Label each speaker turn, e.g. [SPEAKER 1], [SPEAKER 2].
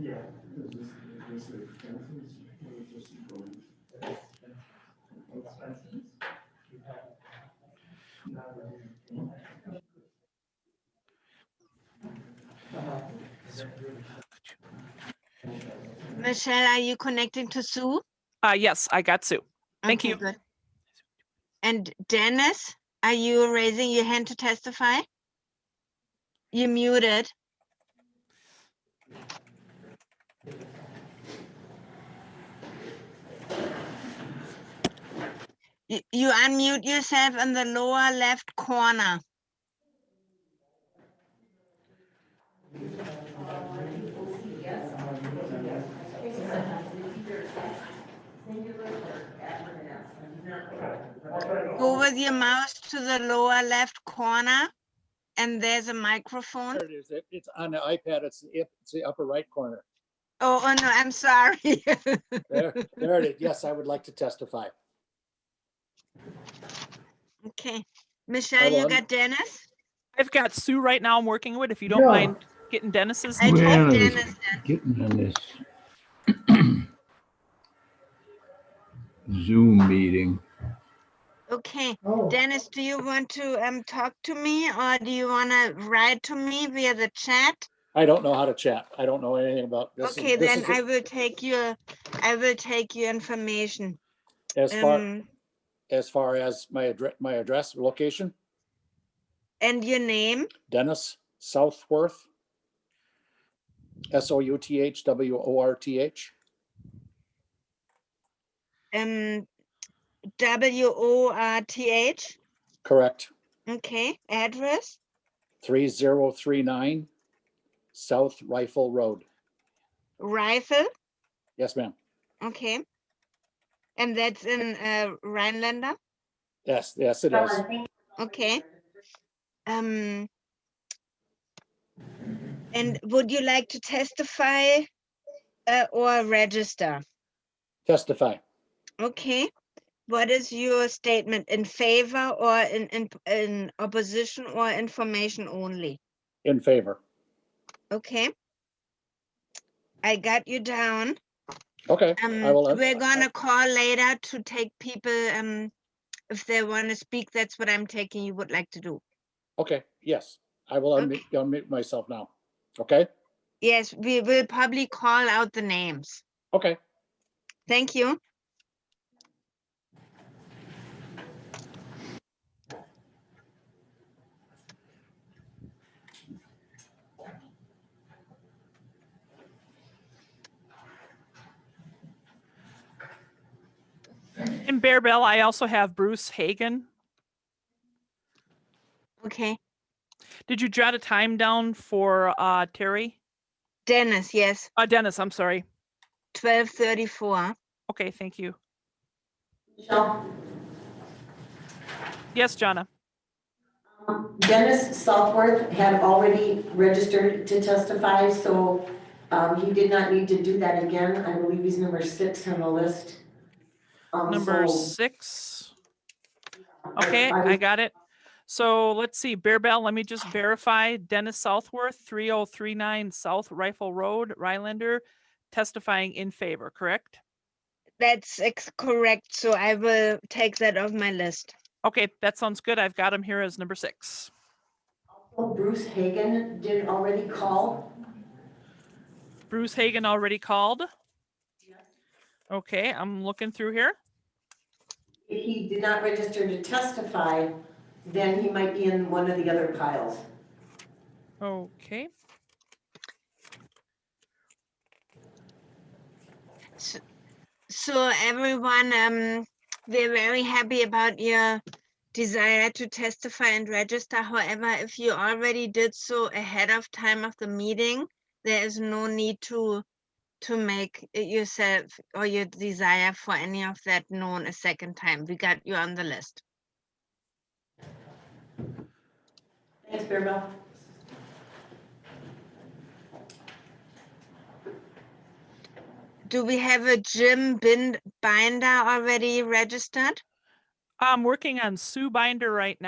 [SPEAKER 1] Yeah.
[SPEAKER 2] Is this, is this expenses or is this going?
[SPEAKER 3] Michelle, are you connecting to Sue?
[SPEAKER 4] Uh, yes, I got Sue. Thank
[SPEAKER 3] Okay,
[SPEAKER 4] you.
[SPEAKER 3] good. And Dennis, are you raising your hand to testify? You muted. You you unmute yourself in the lower left corner. Go with your mouse to the lower left corner and there's a microphone.
[SPEAKER 5] There it is. It- It's on the iPad. It's the, up- it's the upper right corner.
[SPEAKER 3] Oh, oh no, I'm sorry.
[SPEAKER 5] There, there it is. Yes, I would like to testify.
[SPEAKER 3] Okay, Michelle, you
[SPEAKER 5] on.
[SPEAKER 3] got Dennis?
[SPEAKER 4] I've got Sue right now I'm working with, if you don't mind getting Dennis's.
[SPEAKER 3] I
[SPEAKER 6] Well,
[SPEAKER 3] told
[SPEAKER 6] it was-
[SPEAKER 3] Dennis that.
[SPEAKER 6] getting on this Zoom meeting.
[SPEAKER 3] Okay,
[SPEAKER 2] Oh,
[SPEAKER 3] Dennis, do you want to um talk to me or do you want to write to me via the chat?
[SPEAKER 5] I don't know how to chat. I don't know anything about this. is-
[SPEAKER 3] Okay,
[SPEAKER 5] this
[SPEAKER 3] then
[SPEAKER 5] is
[SPEAKER 3] I will take your, I will take your information.
[SPEAKER 5] As far,
[SPEAKER 3] Um,
[SPEAKER 5] as far as my address, my address, location,
[SPEAKER 3] and your name?
[SPEAKER 5] Dennis Southworth. S O U T H W O R T H.
[SPEAKER 3] Um, W O R T H,
[SPEAKER 5] Correct.
[SPEAKER 3] okay, address?
[SPEAKER 5] Three zero three nine South Rifle Road.
[SPEAKER 3] Rifle,
[SPEAKER 5] Yes, ma'am.
[SPEAKER 3] okay. And that's in uh, Rhinelander,
[SPEAKER 5] Yes, yes, it
[SPEAKER 7] uh,
[SPEAKER 5] is.
[SPEAKER 3] okay. Um, and would you like to testify uh, or register?
[SPEAKER 5] Testify.
[SPEAKER 3] Okay. What is your statement in favor or in, in, in opposition or information only?
[SPEAKER 5] In favor.
[SPEAKER 3] Okay. I got you down.
[SPEAKER 5] Okay.
[SPEAKER 3] Um,
[SPEAKER 5] I will-
[SPEAKER 3] we're gonna call later to take people, um, if they wanna speak, that's what I'm taking you would like to do.
[SPEAKER 5] Okay, yes, I will
[SPEAKER 3] Okay.
[SPEAKER 5] unmute, unmute myself now. Okay,
[SPEAKER 3] Yes, we will probably call out the names.
[SPEAKER 5] okay.
[SPEAKER 3] Thank you.
[SPEAKER 4] In Bear Bell, I also have Bruce Hagan.
[SPEAKER 3] Okay,
[SPEAKER 4] Did you jot a time down for uh, Terry?
[SPEAKER 3] Dennis, yes,
[SPEAKER 4] Uh, Dennis, I'm sorry.
[SPEAKER 3] twelve thirty-four.
[SPEAKER 4] Okay, thank you. Yes, Jonna.
[SPEAKER 7] Um, Dennis Southworth had already registered to testify, so um, he did not need to do that again. I believe he's number six on the list. Um,
[SPEAKER 4] Number
[SPEAKER 7] so-
[SPEAKER 4] six. Okay,
[SPEAKER 7] I
[SPEAKER 4] I
[SPEAKER 7] was-
[SPEAKER 4] got it. So let's see, Bear Bell, let me just verify Dennis Southworth, three oh three nine South Rifle Road, Rylander, testifying in favor, correct?
[SPEAKER 3] That's ex- correct, so I will take that off my list.
[SPEAKER 4] Okay, that sounds good. I've got him here as number six.
[SPEAKER 7] Bruce Hagan did already call.
[SPEAKER 4] Bruce Hagan already called. Okay, I'm looking through here.
[SPEAKER 7] If he did not register to testify, then he might be in one of the other piles.
[SPEAKER 4] Okay,
[SPEAKER 3] So everyone, um, we're very happy about your desire to testify and register. However, if you already did so ahead of time of the meeting, there is no need to, to make it yourself or your desire for any of that known a second time. We got you on the list.
[SPEAKER 7] Thanks, Bearbell.
[SPEAKER 3] Do we have a Jim Bin- Binder already registered?
[SPEAKER 4] I'm working on Sue Binder right now.